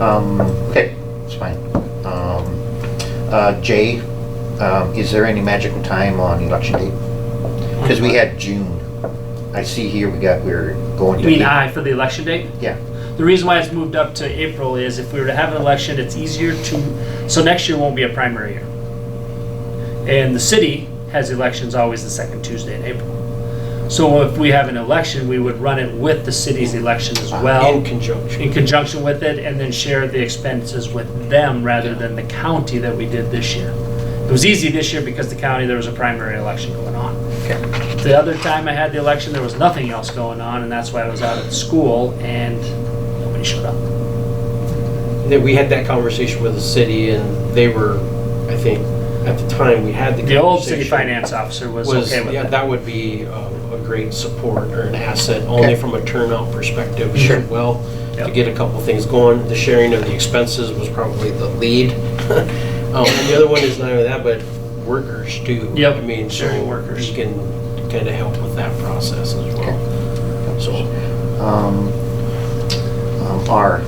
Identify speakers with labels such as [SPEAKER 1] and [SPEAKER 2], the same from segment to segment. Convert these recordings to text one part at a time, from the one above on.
[SPEAKER 1] Um, okay, it's fine. Um, uh, Jay, um, is there any magical time on election date? Because we had June. I see here we got, we're going to.
[SPEAKER 2] You mean
[SPEAKER 1] April.
[SPEAKER 2] I for the election date?
[SPEAKER 1] Yeah,
[SPEAKER 2] The reason why it's moved up to April is if we were to have an election, it's easier to, so next year won't be a primary year. And the city has elections always the second Tuesday in April. So if we have an election, we would run it with the city's election as well,
[SPEAKER 3] In conjunction.
[SPEAKER 2] in conjunction with it, and then share the expenses with them rather than the county that we did this year. It was easy this year because the county, there was a primary election going on.
[SPEAKER 1] okay.
[SPEAKER 2] The other time I had the election, there was nothing else going on, and that's why I was out at school and nobody showed up.
[SPEAKER 3] Then we had that conversation with the city and they were, I think, at the time, we had the
[SPEAKER 2] The old city
[SPEAKER 3] conversation.
[SPEAKER 2] finance officer was okay with
[SPEAKER 3] yeah,
[SPEAKER 2] that.
[SPEAKER 3] that would be um, a great support or an asset, only
[SPEAKER 1] Okay.
[SPEAKER 3] from a turnout perspective
[SPEAKER 1] Sure.
[SPEAKER 3] as well, to
[SPEAKER 2] Yep.
[SPEAKER 3] get a couple things going. The sharing of the expenses was probably the lead. Um, and The other one is not only that, but workers too.
[SPEAKER 2] Yep,
[SPEAKER 3] I mean, so
[SPEAKER 2] sharing workers.
[SPEAKER 3] You can kind of help with that process as well. So,
[SPEAKER 1] Um, um, R,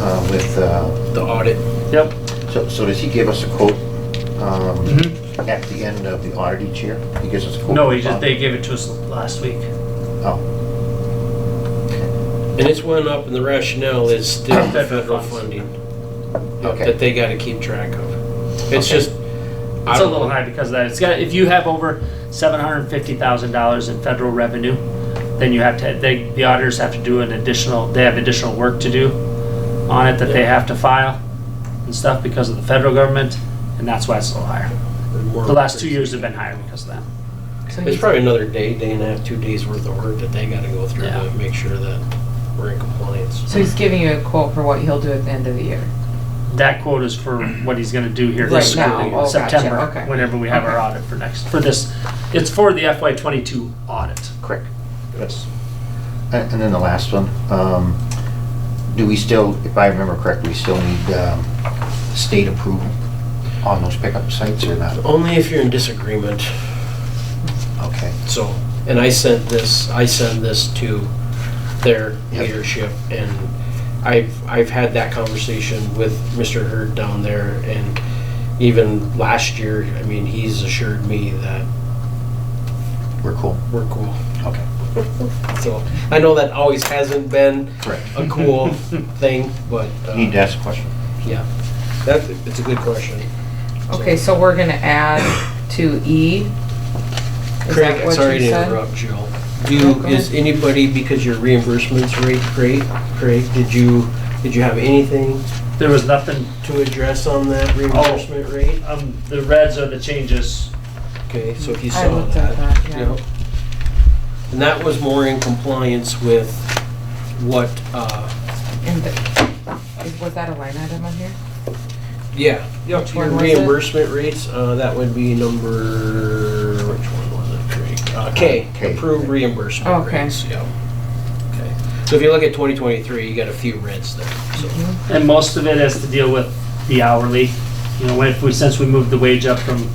[SPEAKER 1] uh, with, uh,
[SPEAKER 3] the audit,
[SPEAKER 2] Yep.
[SPEAKER 1] so, so does he give us a quote, um,
[SPEAKER 2] Mhm.
[SPEAKER 1] at the end of the audit each year? He gives us a quote?
[SPEAKER 2] No, he just, they gave it to us last week.
[SPEAKER 1] Oh,
[SPEAKER 3] and it's went up and the rationale is still the
[SPEAKER 2] Federal
[SPEAKER 3] federal
[SPEAKER 2] funds.
[SPEAKER 3] funding. yep,
[SPEAKER 1] Okay.
[SPEAKER 3] That they got to keep track of. It's
[SPEAKER 1] Okay.
[SPEAKER 3] just. I
[SPEAKER 2] It's a
[SPEAKER 3] don't-
[SPEAKER 2] little high because of that. It's got, if you have over seven hundred and fifty thousand dollars in federal revenue, then you have to, they, the auditors have to do an additional, they have additional work to do on it that they have to file and stuff because of the federal government, and that's why it's a little higher. The last two years have been higher because of that.
[SPEAKER 3] It's probably another day, day and a half, two days worth of work that they gotta go through
[SPEAKER 2] Yeah.
[SPEAKER 3] to make sure that we're in compliance.
[SPEAKER 4] So he's giving you a quote for what he'll do at the end of the year.
[SPEAKER 2] That quote is for what he's gonna do here
[SPEAKER 4] Right
[SPEAKER 2] this
[SPEAKER 4] now.
[SPEAKER 2] school year,
[SPEAKER 4] Oh, gotcha.
[SPEAKER 2] September,
[SPEAKER 4] Okay.
[SPEAKER 2] whenever we have our audit for next, for this, it's for the FY twenty-two audit.
[SPEAKER 1] correct. Yes. And and then the last one, um, do we still, if I remember correctly, we still need um, state approval on those pickup sites or not?
[SPEAKER 3] Only if you're in disagreement,
[SPEAKER 1] Okay,
[SPEAKER 3] so, and I sent this, I sent this to their
[SPEAKER 1] Yep.
[SPEAKER 3] leadership, and I've, I've had that conversation with Mr. Hurd down there, and even last year, I mean, he's assured me that
[SPEAKER 1] we're cool.
[SPEAKER 3] we're cool.
[SPEAKER 1] Okay,
[SPEAKER 3] So, I know that always hasn't been
[SPEAKER 1] correct.
[SPEAKER 3] a cool thing, but. uh,
[SPEAKER 1] Need to ask a question.
[SPEAKER 3] Yeah, that's, it's a good question.
[SPEAKER 4] Okay, so we're gonna add to E? Is
[SPEAKER 3] Craig,
[SPEAKER 4] that what
[SPEAKER 3] sorry
[SPEAKER 4] you
[SPEAKER 3] to
[SPEAKER 4] said?
[SPEAKER 3] interrupt, Jill. Do, you-
[SPEAKER 4] Okay.
[SPEAKER 3] is anybody, because your reimbursements rate great, Craig, did you, did you have anything
[SPEAKER 2] There was nothing,
[SPEAKER 3] to address on
[SPEAKER 4] Oh.
[SPEAKER 3] that reimbursement rate?
[SPEAKER 2] um, the reds are the changes.
[SPEAKER 3] Okay, so if you
[SPEAKER 4] I
[SPEAKER 3] saw
[SPEAKER 4] looked at
[SPEAKER 3] that.
[SPEAKER 4] that, yeah.
[SPEAKER 3] Yep. And that was more in compliance with what, uh,
[SPEAKER 4] And the- is- Was that a line item on here?
[SPEAKER 3] yeah.
[SPEAKER 4] Which
[SPEAKER 3] Your
[SPEAKER 4] one was it?
[SPEAKER 3] reimbursement rates, uh, that would be number, which one was it, Craig? Uh,
[SPEAKER 1] K.
[SPEAKER 3] K, approved reimbursement
[SPEAKER 4] Okay.
[SPEAKER 3] rates, yeah. Okay. So if you look at 2023, you got a few reds there, so.
[SPEAKER 5] Mm-hmm.
[SPEAKER 2] And most of it has to deal with the hourly, you know, when- if we, since we moved the wage up from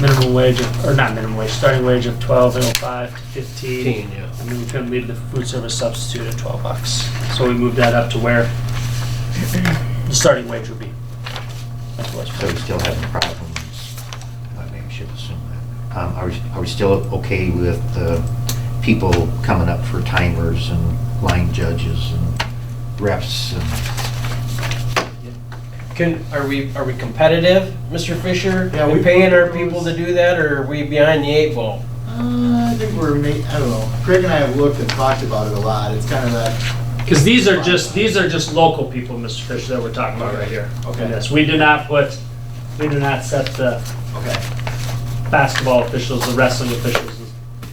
[SPEAKER 2] minimum wage, of- or not minimum wage, starting wage of twelve and five to fifteen.
[SPEAKER 3] 15, yeah.
[SPEAKER 2] I mean, we couldn't leave the food service substitute at twelve bucks, so we moved that up to where the starting wage would be. That's what it's-
[SPEAKER 1] So we still having problems, I maybe should assume that. Um, Are we, are we still okay with uh, people coming up for timers and line judges and refs and?
[SPEAKER 3] Can, are we, are we competitive, Mr. Fisher?
[SPEAKER 5] Yeah,
[SPEAKER 3] in
[SPEAKER 5] we-
[SPEAKER 3] paying our people to do that, or are we behind the eight ball?
[SPEAKER 5] Uh, I think we're, ma- I don't know, Craig and I have looked and talked about it a lot, it's kind of that,
[SPEAKER 2] Because these are just, these are just local people, Mr. Fisher, that we're talking about right here.
[SPEAKER 5] Okay.
[SPEAKER 2] In this. We do not put, we do not set the
[SPEAKER 5] okay,
[SPEAKER 2] basketball officials, the wrestling officials,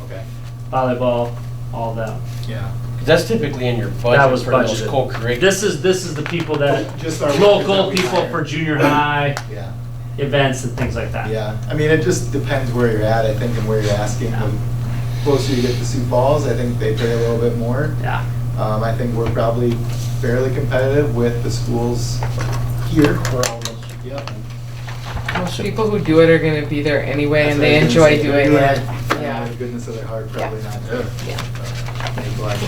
[SPEAKER 5] okay,
[SPEAKER 2] volleyball, all them.
[SPEAKER 5] yeah.
[SPEAKER 3] That's typically in your
[SPEAKER 2] That
[SPEAKER 3] budget
[SPEAKER 2] was
[SPEAKER 3] for those
[SPEAKER 2] budgeted.
[SPEAKER 3] co-curriculum.
[SPEAKER 2] This is, this is the people that,
[SPEAKER 5] Just our workers that
[SPEAKER 2] local
[SPEAKER 5] we
[SPEAKER 2] people
[SPEAKER 5] hire.
[SPEAKER 2] for junior high
[SPEAKER 5] Yeah,
[SPEAKER 2] events and things like that.
[SPEAKER 5] yeah, I mean, it just depends where you're at, I think, and where you're asking.
[SPEAKER 2] Yeah.
[SPEAKER 5] The Closer you get to Sioux Falls, I think they pay a little bit more.
[SPEAKER 2] Yeah.
[SPEAKER 5] Um, I think we're probably fairly competitive with the schools here. Yep.
[SPEAKER 4] Most people who do it are gonna be there anyway and
[SPEAKER 5] That's what I
[SPEAKER 4] they
[SPEAKER 5] was gonna
[SPEAKER 4] enjoy
[SPEAKER 5] say.
[SPEAKER 4] doing
[SPEAKER 5] Yeah.
[SPEAKER 4] it.
[SPEAKER 5] Out
[SPEAKER 4] Yeah.
[SPEAKER 5] of the Goodness of their heart,
[SPEAKER 4] Yeah.
[SPEAKER 5] probably not. to
[SPEAKER 4] Yeah.
[SPEAKER 5] neglect